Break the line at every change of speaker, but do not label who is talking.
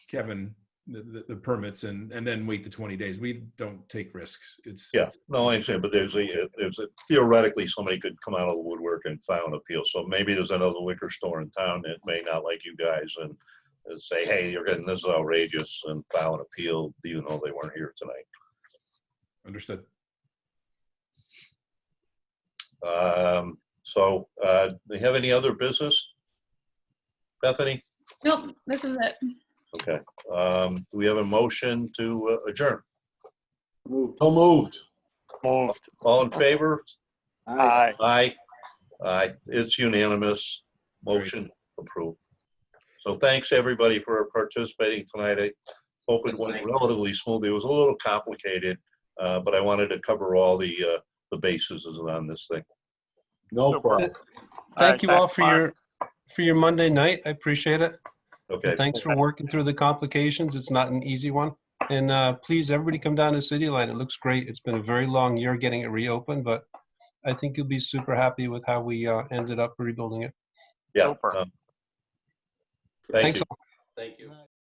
Kevin the, the, the permits and, and then wait the 20 days. We don't take risks. It's,
Yeah, no, I understand, but there's a, uh, there's a theoretically, somebody could come out of the woodwork and file an appeal. So maybe there's another liquor store in town that may not like you guys and and say, hey, you're getting, this is outrageous and file an appeal, even though they weren't here tonight.
understood.
Um, so, uh, do we have any other business? Bethany?
Nope, this was it.
Okay, um, do we have a motion to uh, adjourn?
So moved.
Moved.
All in favor?
Aye.
Aye. Aye. It's unanimous. Motion approved. So thanks, everybody, for participating tonight. I hope it went relatively smoothly. It was a little complicated, uh, but I wanted to cover all the, uh, the bases on this thing.
No problem.
Thank you all for your, for your Monday night. I appreciate it.
Okay,
And Thanks for working through the complications. It's not an easy one. And uh, please, everybody come down to City Line. It looks great. It's been a very long year getting it reopened, but I think you'll be super happy with how we uh, ended up rebuilding it.
yeah.
Super.
um, Thank
Thanks
you.
a
Thank you.